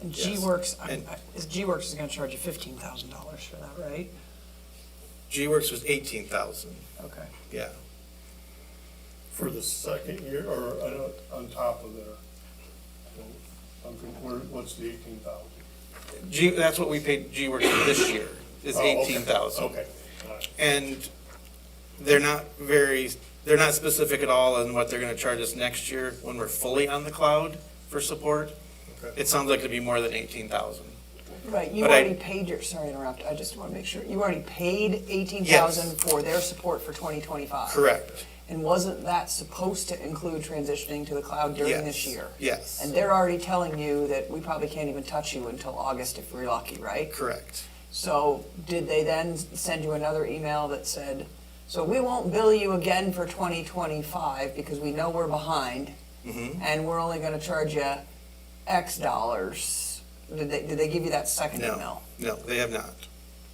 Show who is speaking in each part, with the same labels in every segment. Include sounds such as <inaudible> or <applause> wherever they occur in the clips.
Speaker 1: And
Speaker 2: Yes.
Speaker 1: G-Works, I-
Speaker 2: And-
Speaker 1: I- is G-Works is gonna charge you fifteen thousand dollars for that, right?
Speaker 2: G-Works was eighteen thousand,
Speaker 1: Okay.
Speaker 2: yeah.
Speaker 3: for the second year, or I don't- on top of their, I'm, con- where- what's the eighteen thousand?
Speaker 2: G, that's what we paid G-Works for this year, is
Speaker 1: Oh,
Speaker 2: eighteen thousand.
Speaker 3: Oh, Okay, all right.
Speaker 2: And they're not very, they're not specific at all on what they're gonna charge us next year when we're fully on the cloud for support.
Speaker 3: Okay.
Speaker 2: It sounds like it'd be more than eighteen thousand.
Speaker 1: Right, you
Speaker 2: But I-
Speaker 1: already paid your, sorry to interrupt, I just wanna make sure, you already paid eighteen thousand for their support for twenty twenty-five.
Speaker 2: Correct.
Speaker 1: And wasn't that supposed to include transitioning to the cloud during this
Speaker 2: Yes.
Speaker 1: year?
Speaker 2: Yes,
Speaker 1: And they're already telling you that we probably can't even touch you until August if we're lucky, right?
Speaker 2: correct.
Speaker 1: So did they then send you another email that said, so we won't bill you again for 2025 because we know we're behind
Speaker 2: Mhm.
Speaker 1: and we're only going to charge you X dollars? Did they, did they give you that second
Speaker 2: No.
Speaker 1: email?
Speaker 2: No, they have not.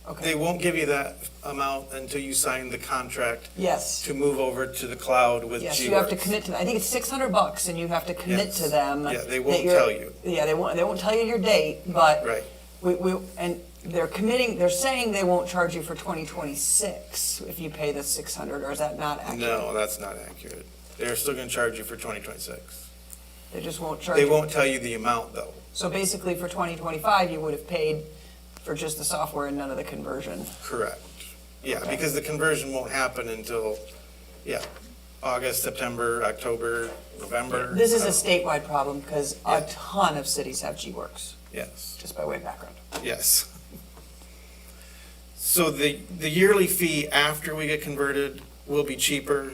Speaker 2: They
Speaker 1: Okay,
Speaker 2: won't give you that amount until you sign the contract
Speaker 1: yes,
Speaker 2: to move over to the cloud with G-Works.
Speaker 1: yes, you have to commit to, that. I think it's 600 bucks and you have to commit to
Speaker 2: Yes.
Speaker 1: them.
Speaker 2: Yeah, they
Speaker 1: that
Speaker 2: won't
Speaker 1: you're-
Speaker 2: tell you.
Speaker 1: Yeah, they won't, they won't tell you your date, but.
Speaker 2: Right.
Speaker 1: We, we, and they're committing, they're saying they won't charge you for 2026 if you pay the 600, or is that not accurate?
Speaker 2: No, that's not accurate. They're still gonna charge you for twenty twenty-six.
Speaker 1: They just won't charge
Speaker 2: They
Speaker 1: you.
Speaker 2: won't tell you the amount, though.
Speaker 1: So basically, for 2025, you would have paid for just the software and none of the conversion.
Speaker 2: Correct. Yeah,
Speaker 1: Okay.
Speaker 2: because the conversion won't happen until, yeah, August, September, October, November.
Speaker 1: This is a
Speaker 2: so-
Speaker 1: statewide problem because
Speaker 2: Yeah.
Speaker 1: a ton of cities have G-Works,
Speaker 2: Yes,
Speaker 1: just by way of background.
Speaker 2: yes. So the, the yearly fee after we get converted will be cheaper,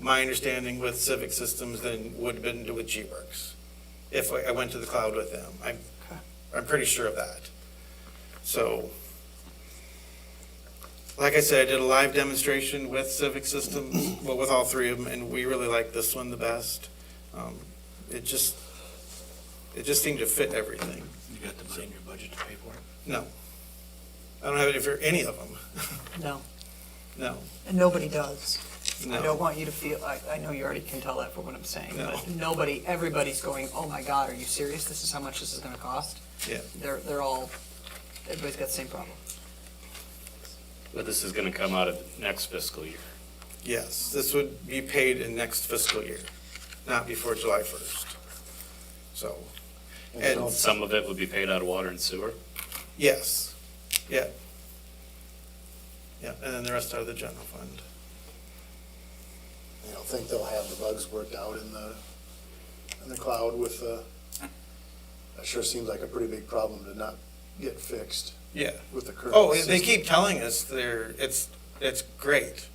Speaker 2: my understanding with Civic Systems than would have been with G-Works, if I I went to the cloud with them. I'm,
Speaker 1: Okay.
Speaker 2: I'm pretty sure of that. So, like I said, I did a live demonstration with Civic Systems, well, with all three of them, and we really liked this one the best. Um, It just, it just seemed to fit everything.
Speaker 4: You got the money in your budget to pay for it?
Speaker 2: No. I don't have it for any of them.
Speaker 1: No,
Speaker 2: No,
Speaker 1: and nobody does. I don't
Speaker 2: no.
Speaker 1: want you to feel, I, I know you already can tell that from what I'm saying,
Speaker 2: No.
Speaker 1: but nobody, everybody's going, oh my God, are you serious? This is how much this is gonna cost?
Speaker 2: Yeah.
Speaker 1: They're, they're all, everybody's got the same problem.
Speaker 5: But this is gonna come out of next fiscal year.
Speaker 2: Yes, this would be paid in next fiscal year, not before July 1st. So, and,
Speaker 5: Some of it would be paid out of water and sewer.
Speaker 2: yes, yeah. Yeah, and then the rest out of the general fund.
Speaker 6: I don't think they'll have the bugs worked out in the, in the cloud with, uh, that sure seems like a pretty big problem to not get fixed
Speaker 2: Yeah.
Speaker 6: with the current.
Speaker 2: Oh, they
Speaker 6: system.
Speaker 2: keep telling us they're, it's, it's great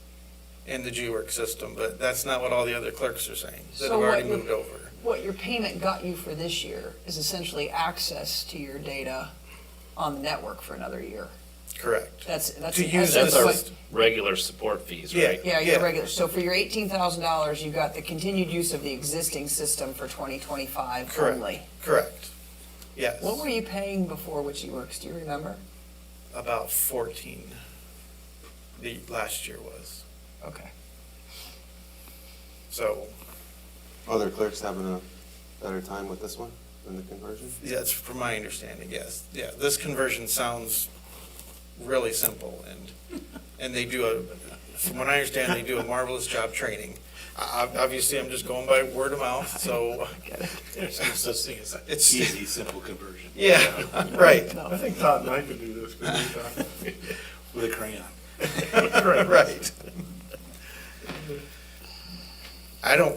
Speaker 2: in the G-Work system, but that's not what all the other clerks are saying, that have
Speaker 1: So what
Speaker 2: already
Speaker 1: would-
Speaker 2: moved over.
Speaker 1: What your payment got you for this year is essentially access to your data on the network for another year.
Speaker 2: Correct.
Speaker 1: That's, that's.
Speaker 2: To
Speaker 1: in
Speaker 2: use
Speaker 1: essence
Speaker 2: this,
Speaker 5: That's
Speaker 1: what-
Speaker 5: our regular support fees,
Speaker 2: Yeah.
Speaker 5: right?
Speaker 1: Yeah, your
Speaker 2: yeah.
Speaker 1: regular, so for your eighteen thousand dollars, you got the continued use of the existing system for twenty twenty-five
Speaker 2: Correct.
Speaker 1: only.
Speaker 2: correct. Yes,
Speaker 1: What were you paying before Witchy Works, do you remember?
Speaker 2: about 14, the last year was.
Speaker 1: Okay.
Speaker 2: So,
Speaker 7: Other clerks having a better time with this one than the conversion?
Speaker 2: yeah, that's from my understanding, yes. Yeah, this conversion sounds really simple and, and they do a, from what I understand, they do a marvelous job training. I- I- Obviously, I'm just going by word of mouth, so <laughs>
Speaker 4: There's no such thing as an
Speaker 2: It's-
Speaker 4: easy, simple conversion.
Speaker 2: Yeah, <laughs> right,
Speaker 3: I think Todd and I could do this, couldn't we, Todd?
Speaker 4: With a crayon.
Speaker 2: right. I don't,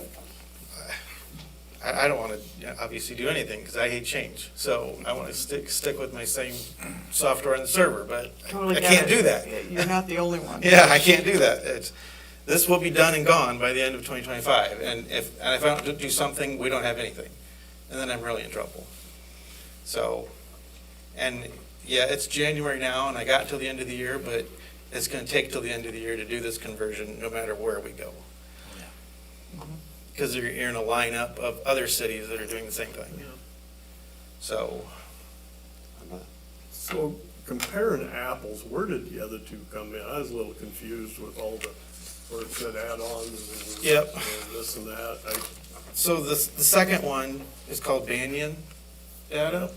Speaker 2: I, I don't want to obviously do anything because I hate change. So I want to stick, stick with my same software and server, but I can't do that.
Speaker 1: You're not the only one.
Speaker 2: Yeah, I can't do that. It's, this will be done and gone by the end of 2025. And if, and if I don't do something, we don't have anything. And then I'm really in trouble. So, and yeah, it's January now and I got till the end of the year, but it's going to take till the end of the year to do this conversion, no matter where we go.
Speaker 4: Yeah.
Speaker 2: Because you're, you're in a lineup of other cities that are doing the same thing. So,
Speaker 7: I'm not-
Speaker 3: So comparing apples, where did the other two come in? I was a little confused with all the, where it said add-ons and.
Speaker 2: Yep.
Speaker 3: and This and that, I,
Speaker 2: so the, the second one is called Banyan data.